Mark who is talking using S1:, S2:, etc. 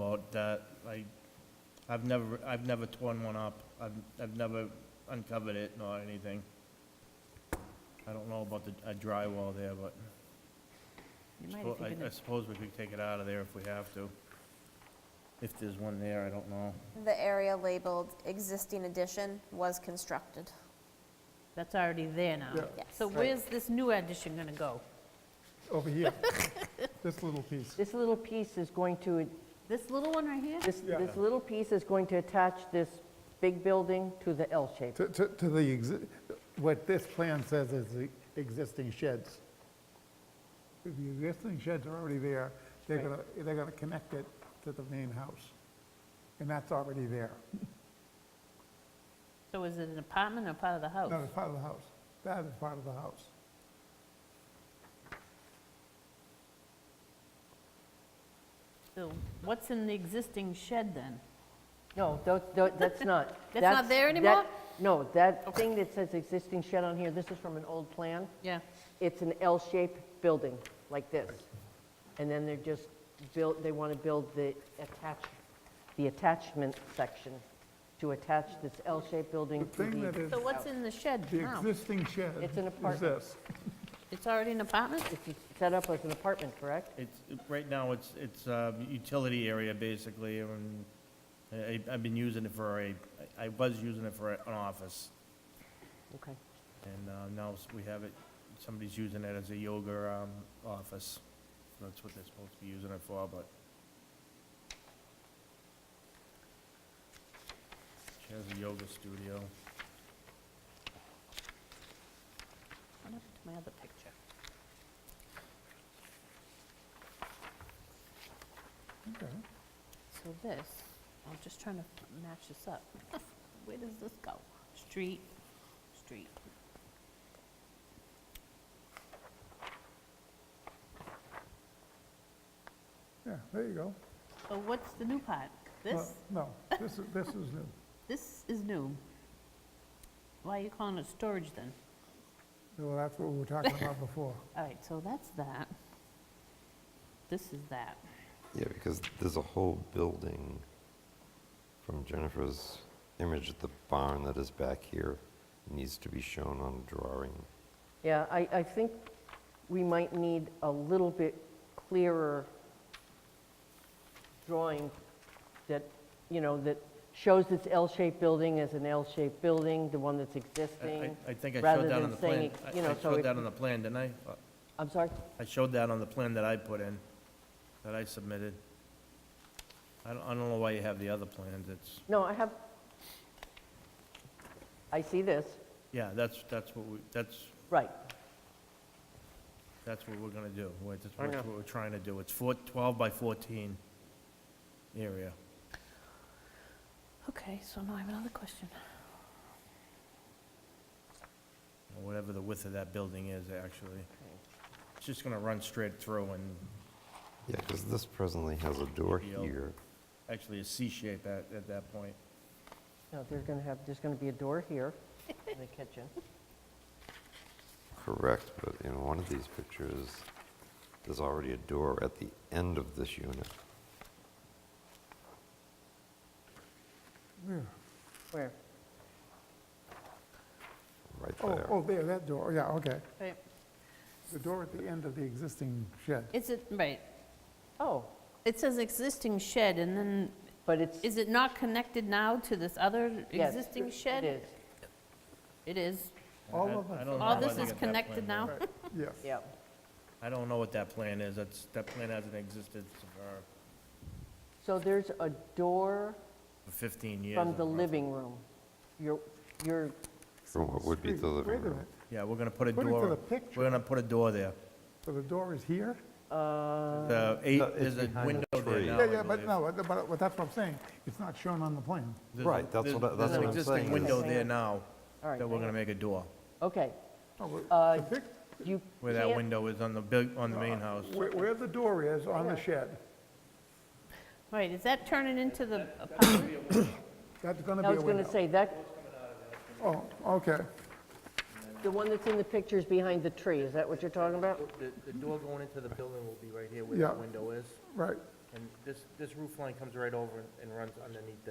S1: about that. I, I've never, I've never torn one up. I've, I've never uncovered it nor anything. I don't know about the, a drywall there, but
S2: You might if
S1: suppo-
S2: you're
S1: I I
S2: gonna,
S1: suppose we could take it out of there if we have to. If there's one there, I don't know.
S3: The area labeled existing addition was constructed.
S2: that's already there now.
S4: Yeah.
S3: Yes.
S2: So where's this new addition gonna go?
S4: over here, this little piece.
S5: This little piece is going to,
S2: This little one right here?
S5: this,
S4: Yeah.
S5: this little piece is going to attach this big building to the L shape.
S4: To, to to the, exi- what this plan says is the existing sheds. The existing sheds are already there, they're
S5: Right.
S4: gonna, they're gonna connect it to the main house. And that's already there,
S2: So is it an apartment or part of the house?
S4: that is part of the house, that is part of the house.
S2: So what's in the existing shed then?
S5: No, tho- tho- that's not.
S2: That's not there
S5: that-
S2: anymore?
S5: No, that thing that says existing shed on here, this is from an old plan.
S2: Yeah.
S5: It's an L-shaped building, like this. And then they're just built, they want to build the attach, the attachment section to attach this L-shaped building
S4: The
S5: to
S4: thing that
S5: the,
S4: is,
S2: So what's in the shed
S4: the
S2: now?
S4: existing shed
S5: It's
S4: is
S5: an apartment.
S4: this.
S2: It's already an apartment?
S5: it's set up as an apartment, correct?
S1: It's, right now, it's, it's a utility area basically, and I, I've been using it for a, I was using it for an office.
S5: Okay.
S1: And uh, now s- we have it, somebody's using it as a yoga um, office. That's what they're supposed to be using it for, but. She has a yoga studio.
S2: What happened to my other picture?
S4: Okay.
S2: So this, I'm just trying to match this up. Where does this go? Street, street.
S4: Yeah, there you go.
S2: So what's the new part?
S4: Well,
S2: This,
S4: No, this is, this is new.
S2: this is new. Why are you calling it storage then?
S4: Well, that's what we were talking about before.
S2: All right, so that's that. This is that.
S6: Yeah, because there's a whole building from Jennifer's image at the barn that is back here, needs to be shown on a drawing.
S5: Yeah, I, I think we might need a little bit clearer drawing that, you know, that shows this L-shaped building as an L-shaped building, the one that's
S1: I- I,
S5: existing.
S1: I think I
S5: rather
S1: showed that
S5: than
S1: on the
S5: saying
S1: plan.
S5: it-
S1: I-
S5: you know,
S1: I
S5: so
S1: showed
S5: it-
S1: that on the plan, didn't I? Uh,
S5: I'm sorry?
S1: I showed that on the plan that I put in, that I submitted. I don't, I don't know why you have the other plans, it's,
S5: No, I have, I see this,
S1: yeah, that's, that's what we, that's,
S5: right.
S1: That's what we're gonna do, We're- that's
S5: I
S1: what
S5: know.
S1: we're trying to do. It's four, 12 by 14 area.
S2: Okay, so now I have another question.
S1: or whatever the width of that building is, actually. It's just gonna run straight through and
S6: Yeah, because this presently has a door
S1: Yeah.
S6: here.
S1: actually a C shape at, at that point.
S5: No, they're going to have, there's going to be a door here in the kitchen.
S6: Correct, but in one of these pictures, there's already a door at the end of this unit.
S5: Where?
S6: Right
S4: Oh,
S6: there.
S4: oh, there, that door, yeah, okay.
S2: Right.
S4: The door at the end of the existing shed.
S2: Is it, right,
S5: Oh,
S2: it says existing shed, and then,
S5: but it's,
S2: is it not connected now to this other
S5: yes.
S2: existing shed?
S5: It is,
S2: It is.
S4: All
S1: I-
S4: of
S1: I
S4: it.
S1: don't know
S2: All
S1: why
S2: this
S1: they got
S2: is
S1: that plan
S2: connected
S1: there.
S2: now?
S4: Yes.
S5: yeah.
S1: I don't know what that plan is, that's, that plan hasn't existed for
S5: So there's a door...
S1: for 15 years. Uh,
S5: From the
S1: or-
S5: living room. Your, your,
S6: From what would be the
S4: Wait-
S6: living
S4: Wait a
S6: room.
S4: minute,
S1: Yeah, we're gonna put a
S4: According to
S1: door,
S4: the
S1: we're
S4: picture-
S1: gonna put a door there.
S4: so the door is here?
S5: uh,
S1: The eight,
S6: No, it's
S1: there's a
S6: behind the
S1: window there
S6: tree.
S1: now,
S4: Yeah,
S1: I
S4: yeah, but
S1: believe.
S4: no, but- but that's what I'm saying, it's not shown on the plan.
S1: There's a-
S6: Right, that's what I-
S1: there's-
S6: that's
S5: what I'm
S1: There's an existing
S6: saying
S1: window
S5: is-
S1: there now
S5: all right,
S1: that we're gonna make a door,
S5: okay.
S4: No, well,
S5: Uh,
S4: Oh, the pic-
S5: You
S1: where that
S5: can't-
S1: window is on the big, on the main house.
S4: Where where the door is on the shed,
S2: Right, is that turning into the apartment?
S4: that's going to be
S5: I
S4: a
S5: was
S4: window.
S5: going to say, that,
S4: Oh, okay,
S5: the one that's in the picture is behind the tree, is that what you're talking about?
S7: The, the door going into the building will be right here where
S4: Yeah.
S7: the window is.
S4: right,
S1: And this, this roof line comes right over and- and runs underneath that.